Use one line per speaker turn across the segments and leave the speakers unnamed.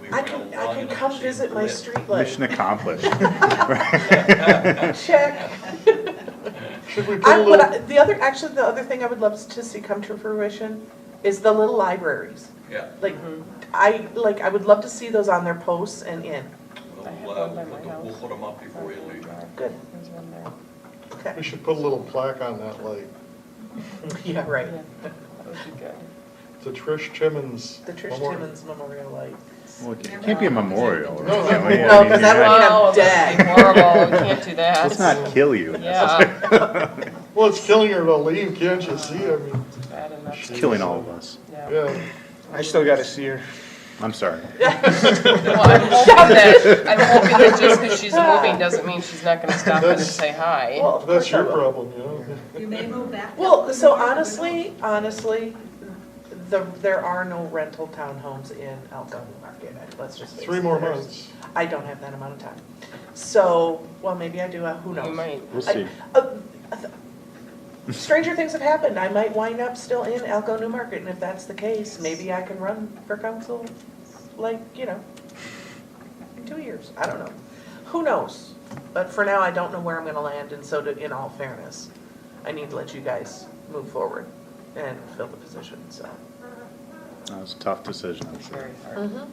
we
I
went
can,
along
I can
enough to
come
see
visit
the
my
permit.
streetlight.
Mission accomplished.
Check.
Should we put
I,
a
what
little,
I, the other, actually, the other thing I would love to see come to fruition is the little libraries.
Yeah,
Like, I, like, I would love to see those on their posts and in.
we'll,
I have
uh,
one by
put
my
the- we'll
house.
put them up before you leave.
Good,
There's one there.
okay.
we should put a little plaque on that light.
Yeah, right.
Yeah, That would be good.
The Trish Timmons.
The Trish
Memorial.
Timmons Memorial Light.
Well, it Can't be a memorial.
No, no,
can we?
no.
I
No,
mean,
'cause that
yeah.
would- mean, I'm
Oh, that'd be
dead.
Horrible, you can't do
Let's
that.
not kill you.
Yeah,
Well, it's killing her to leave, can't you see? I mean,
bad enough.
It's killing all of us.
Yeah.
yeah.
I still gotta see her.
I'm sorry.
Well, I'm hoping that, I'm hoping that just because she's moving doesn't mean she's not gonna stop in and
That's-
say hi.
Well, of
That's
course I
your
will.
problem, you know?
You may move back.
Well, so honestly, honestly, the, there are no rental townhomes in Elko Market, let's just face it.
Three more
There's-
months.
I don't have that amount of time. So, well, maybe I do, uh, who knows?
You might.
We'll
I-
see.
uh, Stranger things have happened, I might wind up still in Elko New Market, and if that's the case, maybe I can run for council, like, you know, in two years, I don't know. Who knows? But for now, I don't know where I'm gonna land, and so to, in all fairness, I need to let you guys move forward and fill the position, so.
That was a tough decision, I'm
It's
sure.
very hard.
Mm-hmm.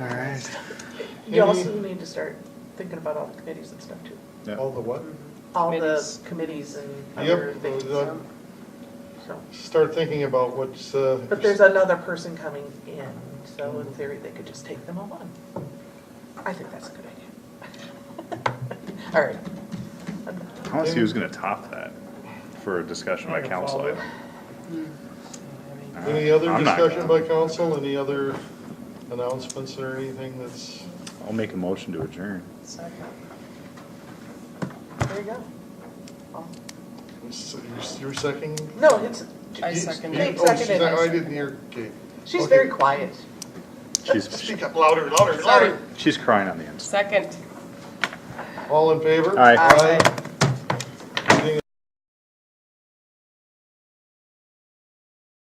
All right.
You also need to start thinking about all the committees and stuff too,
Yeah.
All the what?
all the
Committees.
committees and other
Yep,
things,
uh,
so.
start thinking about what's, uh.
But there's another person coming in, so in theory, they could just take them all on. I think that's a good idea. All right. I'm done.
I want to see who's going to top that for a discussion by council item.
Any other
I'm not
discussion by
gonna.
council, any other announcements or anything that's,
I'll make a motion to adjourn.
There you go. Oh,
you're second?
No, it's,
I second
You-
it.
oh, she's
Seconded.
not- I didn't hear, okay.
she's
Okay.
very quiet.
She's,
Speak up louder, louder,
Sorry.
louder.
she's crying on the inside.
Second.
All in favor?
Aye.
Aye.